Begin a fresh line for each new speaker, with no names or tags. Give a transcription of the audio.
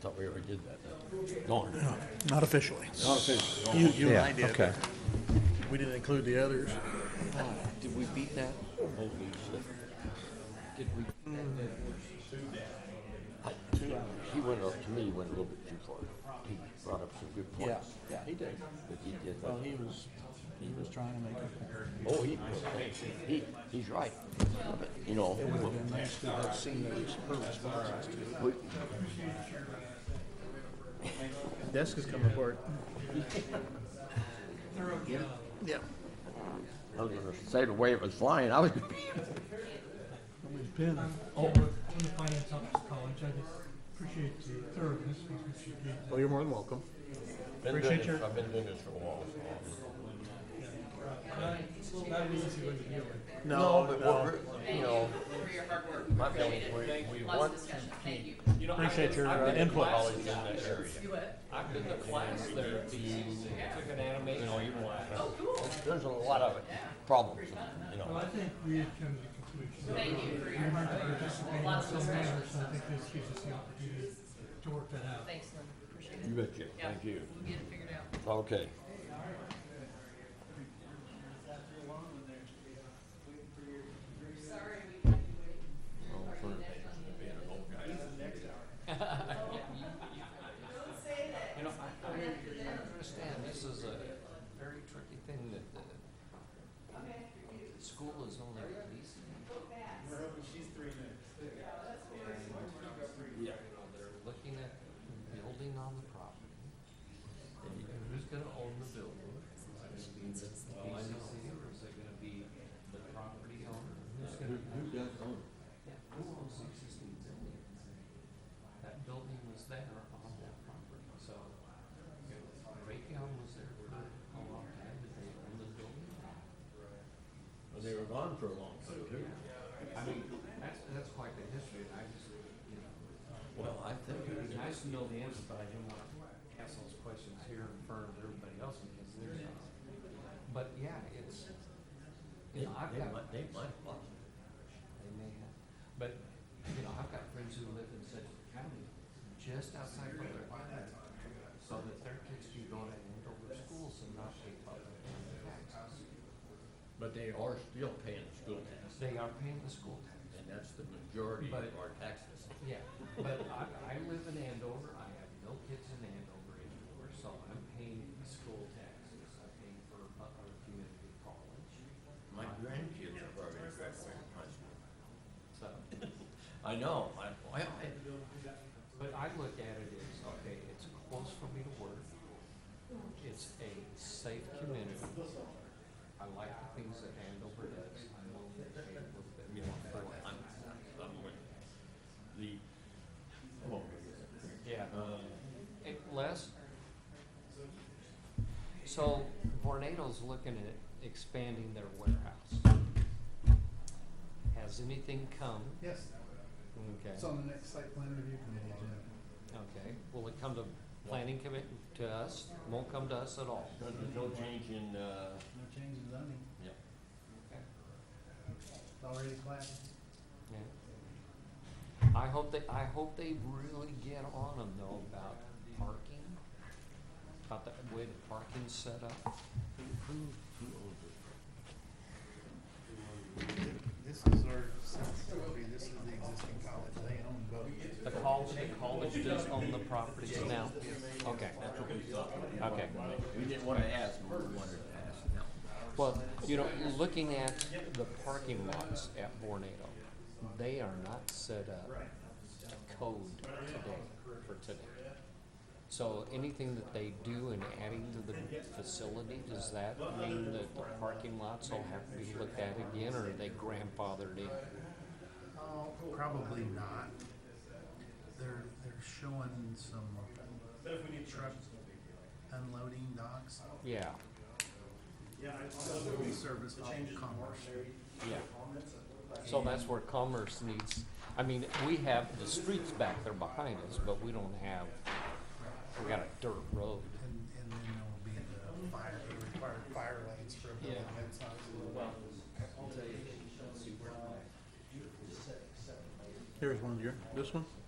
thought we already did that. Darn.
Not officially.
Not officially.
You, you and I
Yeah,
did.
okay.
We didn't include the others.
Did we beat that?
Holy shit.
Did we?
I- He he went, up- to me, he went a little bit too far. He brought up some good
Yeah,
points.
yeah, he did.
But he did,
Well, he was, he was trying to make it.
oh, he, he, he's right. But, You know,
It would have been nice to have seen those, her responses to
we,
it. Desk is coming apart. Yeah.
I was gonna say the way it was flying, I was,
Pin.
Oh, on the finance office college, I just appreciate the thoroughness with which you did
Well, you're more than welcome.
been doing
Appreciate
this,
your-
I've been doing this for a while.
that. It's not easy when you do it.
No,
but
no.
we're, you know,
for your hard work.
my family,
Appreciate it.
we, we
Lots of
want some
discussion. Thank you.
Appreciate your uh, input.
college in that area.
You what?
I've been to class there, you took an animation class.
There's a lot of it, problems, you know.
Well, I think we had come to the conclusion that
Thank you for your
we
hard
weren't
work.
participating in
Lots of
some manner, so I
discussion.
think this gives us the opportunity to work that out.
Thanks, Lynn. Appreciate
You
it.
betcha,
Yeah,
thank you.
We'll get it figured out.
Okay.
You know, I, I understand, this is a very tricky thing that the school is only releasing. And, you know, they're looking at building on the property. And you- and who's gonna own the building? Is it gonna be the licensee or is it gonna be the property owner? Who's gonna? Yeah, who owns the existing building? That building was there on that property, so you know, Raytheon was there for a long time, did they own the building?
They were gone for a long time, too.
I mean, that's, that's quite the history, and I just, you know,
Well, I think it
it'd
was
be nice to know the answer, but I didn't want to ask those questions here in front of everybody else because there's, but yeah, it's,
They,
you know, I've
they
got.
might, they might have lost it.
They may have, but, you know, I've got friends who live in Sedgwick County, just outside Butler, so that their kids can go to Andover schools and not pay Butler County taxes.
But they are still paying school tax,
They are paying the school tax.
and that's the majority of
But-
our taxes.
Yeah, but I, I live in Andover, I have no kids in Andover anymore, so I'm paying school taxes, I'm paying for Butler Community College,
My grandkids are probably graduating high school.
so.
I know, I, well, I-
But I look at it as, okay, it's close for me to work. It's a safe community. I like the things that Andover does. I'm willing to pay a little bit more for it.
I'm, I'm with the, come on.
Yeah.
Um,
Hey, Les? So Vornado's looking at expanding their warehouse. Has anything come?
Yes,
Okay,
it's on the next site plan review committee agenda.
okay. Will it come to planning commit, to us? Won't come to us at all?
There's no change in, uh,
No change in zoning,
yeah.
it's already planned.
Yeah. I hope they, I hope they really get on them though about parking, about the way the parking's set up.
Who, who, who owns this?
This is our, this is the existing college, they own both.
The college, the college does own the properties now. Okay,
That's what we thought.
okay.
We didn't wanna ask, but we wanted to ask now.
Well, you know, looking at the parking lots at Vornado, they are not set up to code today, for today. So anything that they do in adding to the facility, does that mean that the parking lots will have to be looked at again, or are they grandfathered in?
Oh, probably not. They're, they're showing some truck unloading docks,
Yeah,
that we service off of Commerce.
yeah. So that's where commerce needs, I mean, we have the streets back there behind us, but we don't have, we got a dirt road.
And, and then there will be the fire, the required fire lanes for a building
Yeah.
that's not.
Here's one of your, this one?